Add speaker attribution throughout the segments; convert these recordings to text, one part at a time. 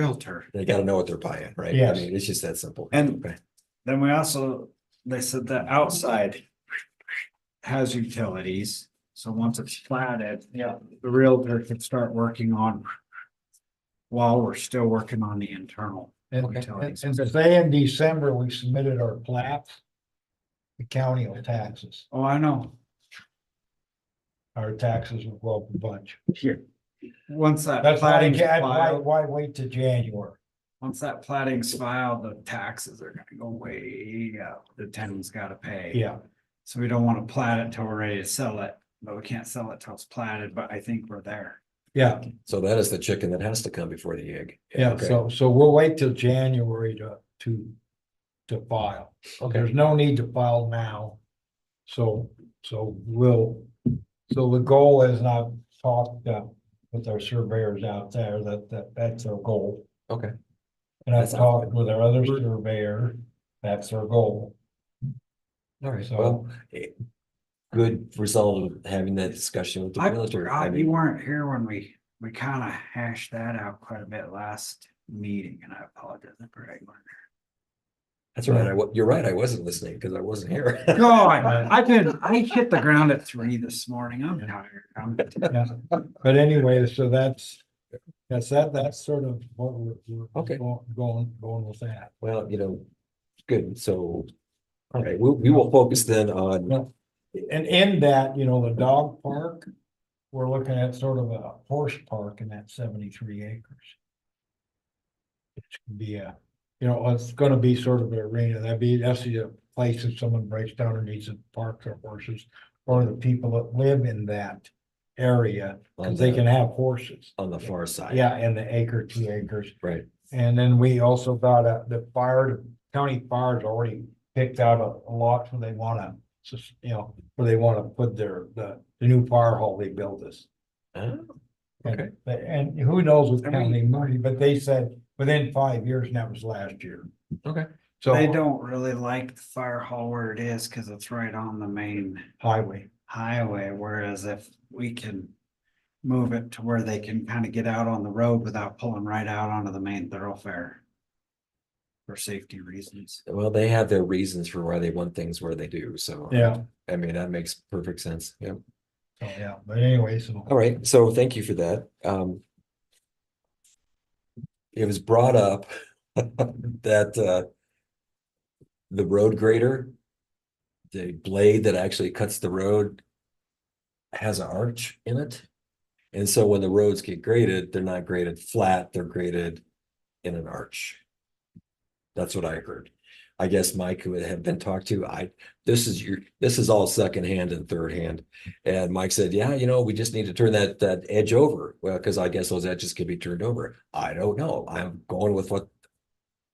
Speaker 1: Realtor.
Speaker 2: They gotta know what they're buying, right? I
Speaker 3: Yes.
Speaker 2: mean, it's just that simple.
Speaker 3: And-
Speaker 2: Okay.
Speaker 3: Then we also, they said the outside has utilities, so once it's platted. Yeah. The Realtor can start working on while we're still working on the internal.
Speaker 4: And,
Speaker 3: Okay.
Speaker 4: and, and to say in December, we submitted our plat. The county will tax us.
Speaker 3: Oh, I know.
Speaker 4: our taxes will go up a bunch.
Speaker 3: Here. Once that
Speaker 4: That's why, I
Speaker 3: plating's
Speaker 4: can't- why,
Speaker 3: filed,
Speaker 4: why wait to January?
Speaker 3: once that plating's filed, the taxes are gonna go way up. The tenant's gotta pay.
Speaker 4: Yeah,
Speaker 3: So we don't wanna plat it till we're ready to sell it, but we can't sell it till it's platted, but I think we're there.
Speaker 4: yeah,
Speaker 2: So that is the chicken that has to come before the egg.
Speaker 4: yeah,
Speaker 2: Okay.
Speaker 4: so, so we'll wait till January to, to, to file.
Speaker 2: Okay,
Speaker 4: There's no need to file now. So, so we'll, so the goal is, and I've talked uh, with our surveyors out there, that, that, that's our goal.
Speaker 2: okay.
Speaker 4: And I've
Speaker 2: That sounds good.
Speaker 4: talked with our other surveyor, that's our goal.
Speaker 2: All right,
Speaker 4: So-
Speaker 2: well, eh, good result of having that discussion with the
Speaker 3: I
Speaker 2: realtor. I
Speaker 3: forgot you
Speaker 2: mean,
Speaker 3: weren't here when we, we kind of hashed that out quite a bit last meeting and I apologize. for that.
Speaker 2: that's right. I, wa- you're right. I wasn't listening because I wasn't here.
Speaker 3: No, I, I've been, I hit the ground at three this morning. I'm tired. I'm,
Speaker 4: Yeah, but anyway, so that's, that's that, that's sort of what we're, we're
Speaker 2: Okay.
Speaker 4: go- going, going with that.
Speaker 2: Well, you know, good, so. All right, we, we will focus then on,
Speaker 4: And in that, you know, the dog park, we're looking at sort of a horse park in that seventy-three acres. It's gonna be a, you know, it's gonna be sort of an arena, that'd be, that's the place if someone breaks down and needs to park their horses. Or the people that live in that area,
Speaker 2: on
Speaker 4: cause they can
Speaker 2: the,
Speaker 4: have horses.
Speaker 2: on the far side.
Speaker 4: Yeah, and the acre, two acres.
Speaker 2: Right,
Speaker 4: And then we also got a, the fire, county fire's already picked out a a lot where they wanna, sus- you know, where they wanna put their, the, the new fire hall they built us.
Speaker 2: Ah,
Speaker 4: And-
Speaker 2: Okay.
Speaker 4: And who knows with
Speaker 3: And we-
Speaker 4: county money, but they said within five years, and that was last year.
Speaker 2: Okay.
Speaker 4: So.
Speaker 3: they don't really like the fire hall where it is because it's right on the main
Speaker 4: Highway,
Speaker 3: highway, whereas if we can move it to where they can kind of get out on the road without pulling right out onto the main thoroughfare for safety reasons.
Speaker 2: well, they have their reasons for why they want things where they do, so.
Speaker 4: yeah,
Speaker 2: I mean, that makes perfect sense, yeah.
Speaker 4: so, yeah, but anyway, so.
Speaker 2: All right, so thank you for that. Um. It was brought up that uh. The road grader. The blade that actually cuts the road. Has an arch in it. And so when the roads get graded, they're not graded flat, they're graded in an arch. That's what I heard. I guess Mike would have been talked to. I, this is your, this is all secondhand and third hand. And Mike said, yeah, you know, we just need to turn that, that edge over. Well, because I guess those edges can be turned over. I don't know. I'm going with what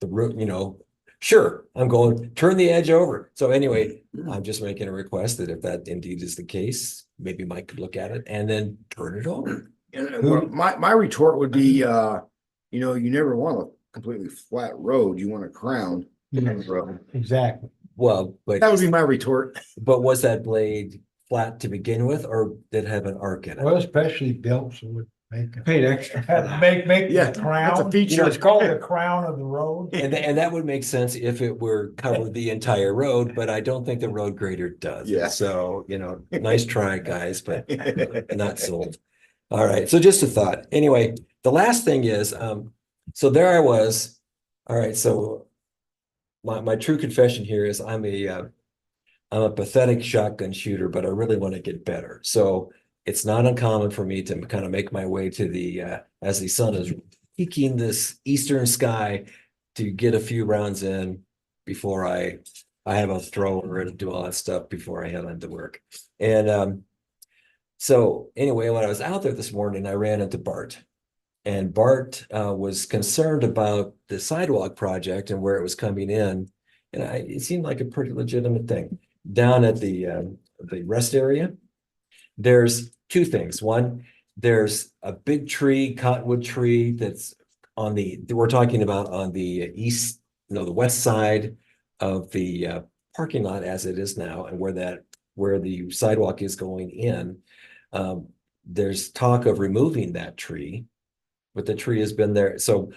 Speaker 2: the root, you know, sure, I'm going, turn the edge over. So anyway, I'm just making a request that if that indeed is the case, maybe Mike could look at it and then turn it over.
Speaker 5: Yeah, well, my, my retort would be, uh, you know, you never want a completely flat road, you want a crown.
Speaker 4: Yes,
Speaker 5: road.
Speaker 4: Exactly,
Speaker 2: Well, but,
Speaker 5: That would be my retort.
Speaker 2: but was that blade flat to begin with or did it have an arc in
Speaker 4: well,
Speaker 2: it?
Speaker 4: especially built, so would make it.
Speaker 3: Paid extra for that.
Speaker 4: Make, make
Speaker 5: Yeah,
Speaker 4: the
Speaker 5: that's a
Speaker 4: crown, you know,
Speaker 5: feature.
Speaker 4: it's called the crown of the road.
Speaker 2: And, tha- and that would make sense if it were covered the entire road, but I don't think the road grader does.
Speaker 5: Yeah.
Speaker 2: So, you know, nice try, guys, but not sold. All right, so just a thought. Anyway, the last thing is, um, so there I was. All right, so my, my true confession here is I'm a, uh, I'm a pathetic shotgun shooter, but I really want to get better. So it's not uncommon for me to kind of make my way to the, uh, as the sun is peeking this eastern sky to get a few rounds in before I, I have a thrower and do all that stuff before I head on to work. And, um, so anyway, when I was out there this morning, I ran into Bart. And Bart uh, was concerned about the sidewalk project and where it was coming in. And I, it seemed like a pretty legitimate thing. Down at the, um, the rest area, there's two things. One, there's a big tree, cottonwood tree that's on the, that we're talking about on the east, no, the west side of the uh, parking lot as it is now and where that, where the sidewalk is going in. Um, there's talk of removing that tree. But the tree has been there, so